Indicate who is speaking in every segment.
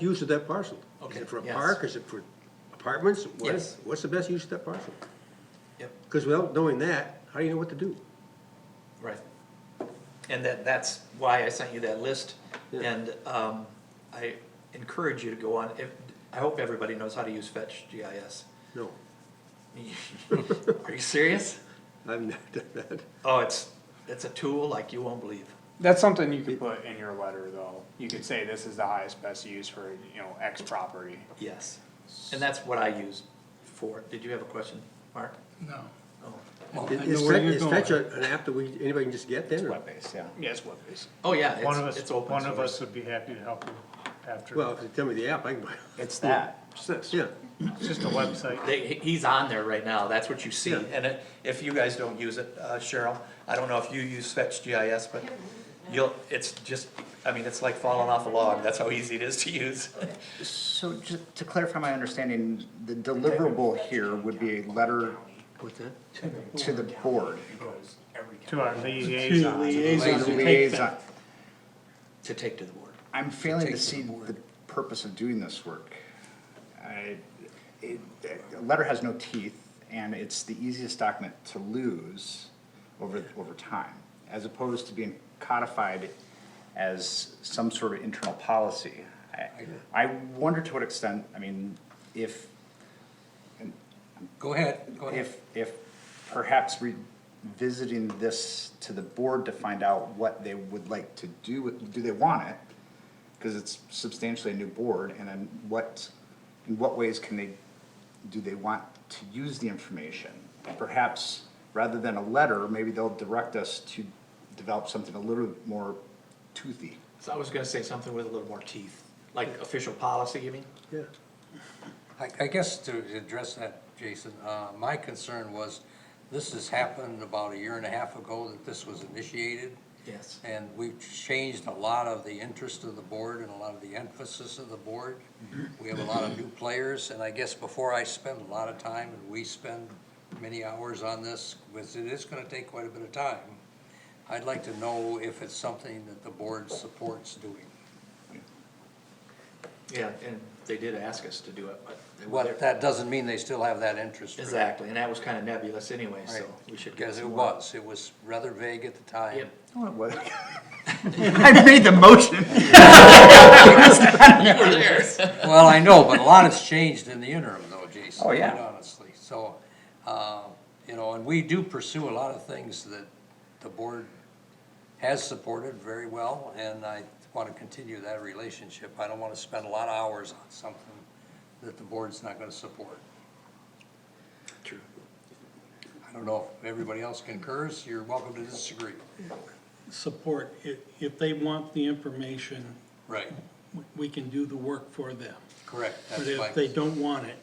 Speaker 1: use of that parcel?
Speaker 2: Okay,
Speaker 1: Is it for a
Speaker 2: yes.
Speaker 1: park, is it for apartments? What-
Speaker 2: Yes.
Speaker 1: What's the best use of that parcel?
Speaker 2: Yep.
Speaker 1: Because without knowing that, how do you know what to do?
Speaker 2: Right. And that, that's why I sent you that list,
Speaker 1: Yeah.
Speaker 2: and, um, I encourage you to go on, if, I hope everybody knows how to use Fetch GIS.
Speaker 1: No,
Speaker 2: Are you serious?
Speaker 1: I've not done that.
Speaker 2: Oh, it's, it's a tool like you won't believe.
Speaker 3: That's something you could put in your letter, though. You could say this is the highest best use for, you know, X property.
Speaker 2: Yes. And that's what I use for, did you have a question, Mark?
Speaker 4: No.
Speaker 2: Oh.
Speaker 4: Well, I
Speaker 1: Is
Speaker 4: know where
Speaker 1: Fetch,
Speaker 4: you're
Speaker 1: is
Speaker 4: going.
Speaker 1: Fetch a- an app that we, anybody can just get then? or-
Speaker 5: Web-based, yeah.
Speaker 3: Yes, what is?
Speaker 2: Oh, yeah,
Speaker 4: One of
Speaker 2: it's,
Speaker 4: us,
Speaker 2: it's open
Speaker 4: one of
Speaker 2: source.
Speaker 4: us would be happy to help you after.
Speaker 1: Well, if you tell me the app, I can buy it.
Speaker 5: It's that.
Speaker 4: It's this,
Speaker 1: Yeah,
Speaker 4: It's just a website.
Speaker 2: They, he- he's on there right now, that's what you see,
Speaker 1: Yeah.
Speaker 2: and it- if you guys don't use it, uh, Cheryl, I don't know if you use Fetch GIS, but you'll, it's just, I mean, it's like falling off a log, that's how easy it is to use.
Speaker 5: So ju- to clarify my understanding, the deliverable here would be a letter
Speaker 1: what's that?
Speaker 5: to the board.
Speaker 4: To our liaison.
Speaker 5: Liaison- liaison.
Speaker 2: To take to the board.
Speaker 5: I'm failing to see the purpose of doing this work. I, it, a letter has no teeth, and it's the easiest document to lose over, over time, as opposed to being codified as some sort of internal policy. I, I wonder to what extent, I mean, if
Speaker 6: Go ahead, go ahead.
Speaker 5: if, if perhaps revisiting this to the board to find out what they would like to do, with- do they want it? Because it's substantially a new board, and then what, in what ways can they, do they want to use the information? Perhaps, rather than a letter, maybe they'll direct us to develop something a little more toothy.
Speaker 2: So I was gonna say something with a little more teeth, like official policy, you mean?
Speaker 1: Yeah,
Speaker 6: I, I guess to address that, Jason, uh, my concern was, this has happened about a year and a half ago that this was initiated.
Speaker 2: Yes.
Speaker 6: And we've changed a lot of the interest of the board and a lot of the emphasis of the board.
Speaker 2: Mm-hmm.
Speaker 6: We have a lot of new players, and I guess before I spend a lot of time, and we spend many hours on this, because it is gonna take quite a bit of time, I'd like to know if it's something that the board supports doing.
Speaker 2: Yeah, and they did ask us to do it, but. they were
Speaker 6: But
Speaker 2: there.
Speaker 6: that doesn't mean they still have that interest. for it.
Speaker 2: Exactly, and that was kinda nebulous anyway, so
Speaker 6: Right.
Speaker 2: we should. get
Speaker 6: Because it
Speaker 2: some more.
Speaker 6: was, it was rather vague at the time.
Speaker 2: Yep.
Speaker 5: What- I made the motion.
Speaker 6: Well, I know, but a lot has changed in the interim though, Jason.
Speaker 5: Oh, yeah.
Speaker 6: quite Honestly, so, uh, you know, and we do pursue a lot of things that the board has supported very well, and I wanna continue that relationship. I don't wanna spend a lot of hours on something that the board's not gonna support.
Speaker 2: True.
Speaker 6: I don't know if everybody else concurs, you're welcome to disagree.
Speaker 4: Support, if, if they want the information,
Speaker 6: Right,
Speaker 4: we can do the work for them.
Speaker 6: correct.
Speaker 4: But
Speaker 6: that's my-
Speaker 4: if they don't want it,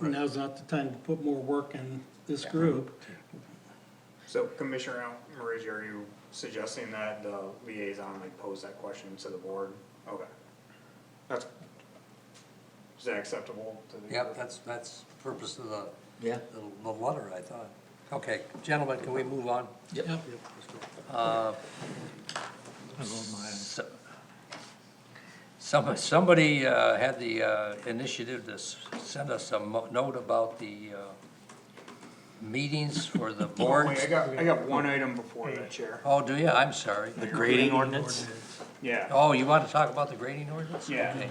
Speaker 4: now's not the time to put more work in this group.
Speaker 3: So Commissioner Marizzi, are you suggesting that the liaison like pose that question to the board? Okay. That's, is that acceptable to the?
Speaker 6: Yep, that's, that's purpose of the,
Speaker 2: Yeah.
Speaker 6: the the letter, I thought. Okay, gentlemen, can we move on?
Speaker 2: Yep.
Speaker 6: So- Some, somebody uh, had the uh, initiative to s- send us a mo- note about the uh, meetings for the
Speaker 3: Oh,
Speaker 6: board.
Speaker 3: Wait, I got, I got one item before that, Chair.
Speaker 6: Oh, do you? I'm sorry.
Speaker 2: The grading ordinance?
Speaker 3: Yeah,
Speaker 6: Oh, you want to talk about the grading ordinance?
Speaker 3: Yeah.
Speaker 6: Okay.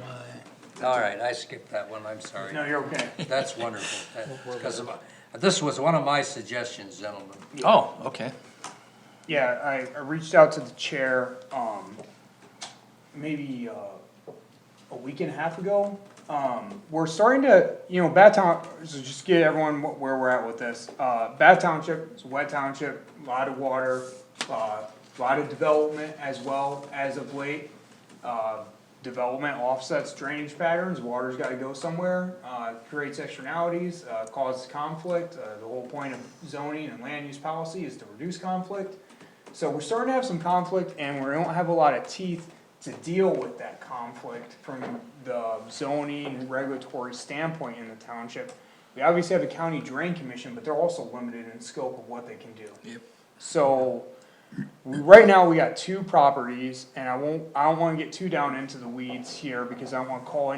Speaker 6: All right, I skipped that one, I'm sorry.
Speaker 3: no, you're okay.
Speaker 6: That's wonderful. Because this was one of my suggestions, gentlemen.
Speaker 5: Oh, okay.
Speaker 3: Yeah, I, I reached out to the chair, um, maybe, uh, a week and a half ago. Um, we're starting to, you know, Bath Town, so just get everyone wh- where we're at with this. Uh, Bath Township, it's a wet township, lot of water, uh, lot of development as well as of late. Uh, development offsets drainage patterns, water's gotta go somewhere, uh, creates externalities, uh, causes conflict. Uh, the whole point of zoning and land use policy is to reduce conflict. So we're starting to have some conflict and we don't have a lot of teeth to deal with that conflict from the zoning regulatory standpoint in the township. We obviously have a county drain commission, but they're also limited in scope of what they can do. Yep. So, we- right now, we got two properties and I won't, I don't wanna get too down into the weeds here because I don't wanna call